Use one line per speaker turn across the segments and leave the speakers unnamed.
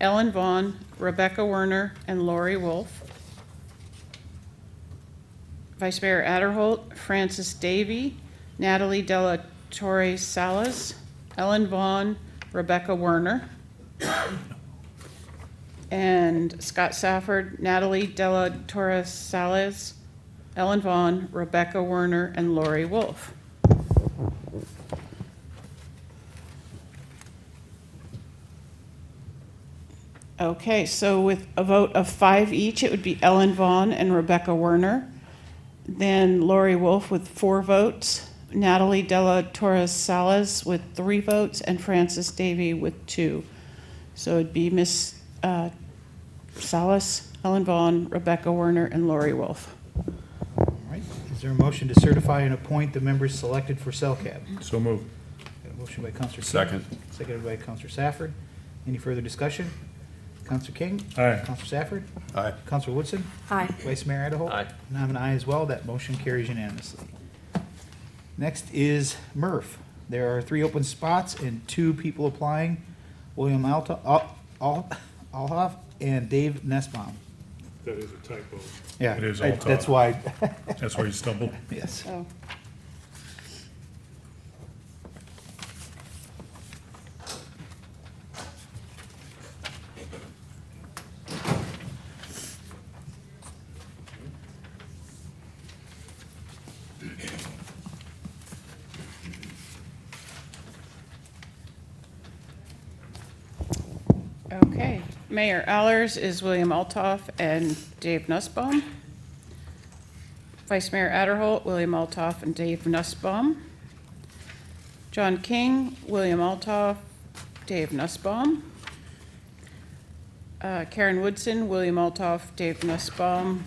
Ellen Vaughn, Rebecca Werner, and Lori Wolf. Vice Mayor Adderholt, Francis Davy, Natalie Della Torre Salas, Ellen Vaughn, Rebecca Werner, and Scott Safford, Natalie Della Torre Salas, Ellen Vaughn, Rebecca Werner, and Lori Wolf. Okay, so with a vote of five each, it would be Ellen Vaughn and Rebecca Werner. Then Lori Wolf with four votes, Natalie Della Torres Salas with three votes, and Frances Davy with two. So it'd be Miss uh, Salas, Ellen Vaughn, Rebecca Werner, and Lori Wolf.
All right, is there a motion to certify and appoint the members selected for CellCAB?
So moved.
Got a motion by Counselor King.
Second.
Seconded by Counselor Safford. Any further discussion? Counselor King?
Aye.
Counselor Safford?
Aye.
Counselor Woodson?
Aye.
Vice Mayor Adderhold?
Aye.
And I'm an aye as well. That motion carries unanimously. Next is MRF. There are three open spots and two people applying, William Alta, Al- Al- Alhoff and Dave Nussbaum.
That is a typo.
Yeah.
It is
I-
Althoff.
That's why,
That's where you stumbled.
yes.
Oh, okay. Mayor Allers is William Altoff and Dave Nussbaum. Vice Mayor Adderholt, William Altoff, and Dave Nussbaum. John King, William Altoff, Dave Nussbaum. Uh, Karen Woodson, William Altoff, Dave Nussbaum,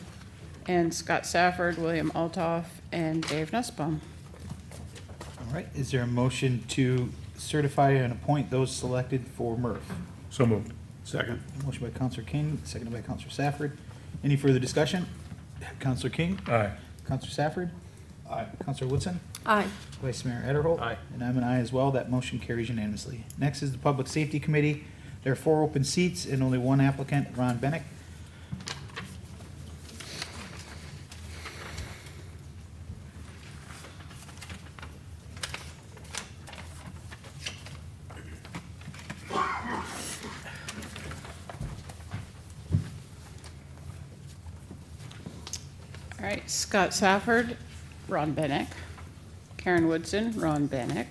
and Scott Safford, William Altoff, and Dave Nussbaum.
All right, is there a motion to certify and appoint those selected for MRF?
So moved. Second.
Motion by Counselor King, seconded by Counselor Safford. Any further discussion? Counselor King?
Aye.
Counselor Safford? Aye. Counselor Woodson?
Aye.
Vice Mayor Adderholt?
Aye.
And I'm an aye as well. That motion carries unanimously. Next is the Public Safety Committee. There are four open seats and only one applicant, Ron Bennett.
All right, Scott Safford, Ron Bennett. Karen Woodson, Ron Bennett.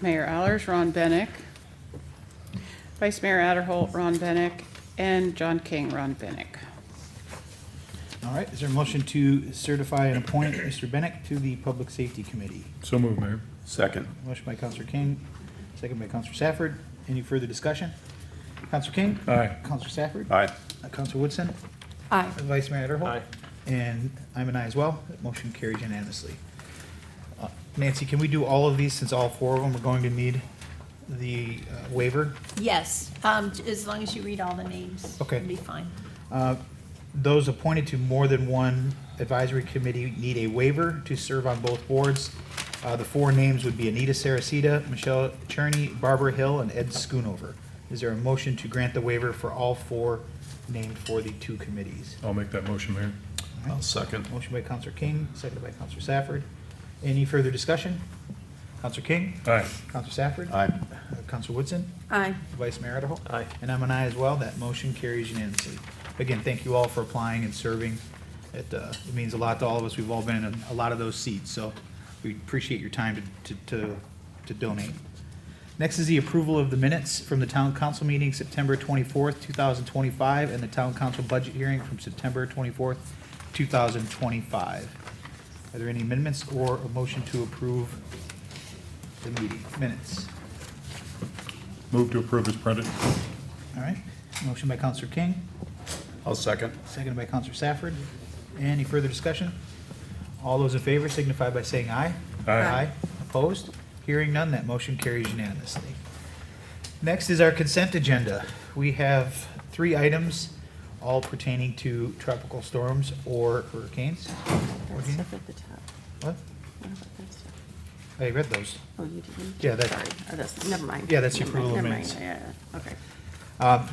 Mayor Allers, Ron Bennett. Vice Mayor Adderholt, Ron Bennett, and John King, Ron Bennett.
All right, is there a motion to certify and appoint Mr. Bennett to the Public Safety Committee?
So moved, Mayor.
Second.
Motion by Counselor King, second by Counselor Safford. Any further discussion? Counselor King?
Aye.
Counselor Safford?
Aye.
Uh, Counselor Woodson?
Aye.
Vice Mayor Adderhold?
Aye.
And I'm an aye as well. That Motion carries unanimously. Uh, Nancy, can we do all of these since all four of them are going to need the uh, waiver?
Yes, um, as long as you read all the names.
Okay.
It'll be fine.
Uh, Those appointed to more than one advisory committee need a waiver to serve on both boards. Uh, The four names would be Anita Saracita, Michelle Cherney, Barbara Hill, and Ed Schoonover. Is there a motion to grant the waiver for all four named for the two committees?
I'll make that motion, Mayor.
I'll
second.
Motion by Counselor King, seconded by Counselor Safford. Any further discussion? Counselor King?
Aye.
Counselor Safford?
Aye.
Uh, Counselor Woodson?
Aye.
Vice Mayor Adderhold?
Aye.
And I'm an aye as well. That motion carries unanimously. Again, thank you all for applying and serving. It, uh, it means a lot to all of us. We've all been in a- a lot of those seats, so we appreciate your time to, to- to, to donate. Next is the approval of the minutes from the town council meeting September twenty-fourth, two thousand twenty-five, and the town council budget hearing from September twenty-fourth, two thousand twenty-five. Are there any amendments or a motion to approve the meeting minutes?
Move to approve as printed.
All right, motion by Counselor King,
I'll second.
Seconded by Counselor Safford. Any further discussion? All those in favor signify by saying aye.
Aye.
Opposed? Hearing none, that motion carries unanimously. Next is our consent agenda. We have three items, all pertaining to tropical storms or hurricanes.
That
Regina?
stuff at the top.
What?
What about that stuff?
I read those.
Oh, you didn't?
Yeah, that-
Sorry. Oh, that's, never mind.
Yeah, that's your
Never mind,
approval of
never
minutes.
mind. Yeah, yeah, okay.
Uh, The